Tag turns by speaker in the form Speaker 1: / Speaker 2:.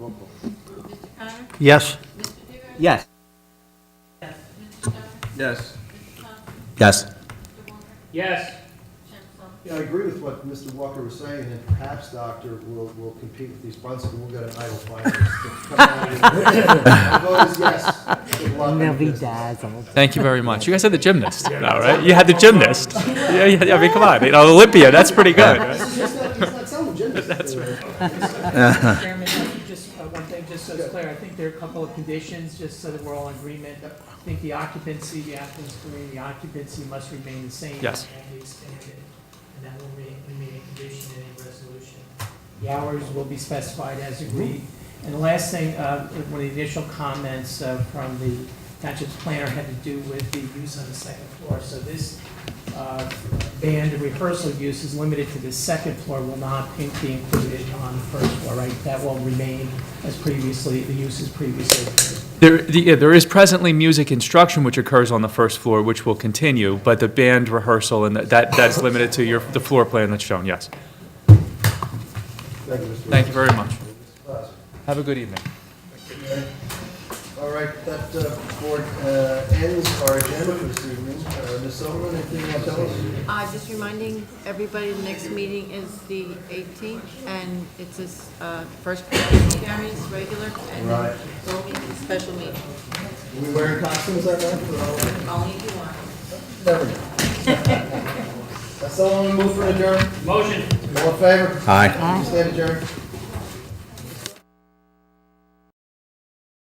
Speaker 1: Yes.
Speaker 2: Yes.
Speaker 3: Yes.
Speaker 2: Yes.
Speaker 4: Yes.
Speaker 5: Yeah, I agree with what Mr. Walker was saying, and perhaps, Doctor, we'll, we'll compete with these bunts, and we'll get an idle finalist. to come out here. My vote is yes. Good luck in
Speaker 6: They'll be
Speaker 5: business.
Speaker 6: dazzled.
Speaker 7: Thank you very much. You guys had the gymnast, now, right? You had the gymnast. Yeah, yeah, yeah, I mean, come on, you know, Olympia, that's pretty good. right?
Speaker 5: He's not, he's not selling gyms. That's right.
Speaker 4: Chairman, if you just, uh, one thing, just so it's clear, I think there are a couple of conditions, just so that we're all in agreement. I think the occupancy, the applicant's agreeing, the occupancy must remain the same.
Speaker 7: Yes.
Speaker 4: And the standard, and that will remain, remain a condition in any resolution. The hours will be specified as agreed. And the last thing, uh, one of the initial comments uh, from the township's planner had to do with the use on the second floor. So this uh, band and rehearsal use is limited to the second floor, will not be included on the first floor, right? That will remain as previously, the use is previously. approved.
Speaker 7: There, the- yeah, there is presently music instruction which occurs on the first floor, which will continue, but the band rehearsal and that, that's limited to your, the floor plan that's shown, yes.
Speaker 5: Thank you, Mr.
Speaker 7: Thank you very much.
Speaker 5: Walker.
Speaker 7: Have a good evening.
Speaker 5: All right, that uh, board uh, ends our agenda for this evening. Uh, Ms. Silverman, anything you want to tell us?
Speaker 8: Uh, just reminding everybody, the next meeting is the 18th, and it's this, uh, first Gary's regular, and
Speaker 5: Right.
Speaker 8: then we'll meet the special meeting,
Speaker 5: We wearing costumes that night? for all of us?
Speaker 8: only if you want.
Speaker 5: Never. That's all I'm gonna move for adjourn.
Speaker 4: Motion.
Speaker 5: All in favor?
Speaker 2: Aye.
Speaker 5: Stand adjourned.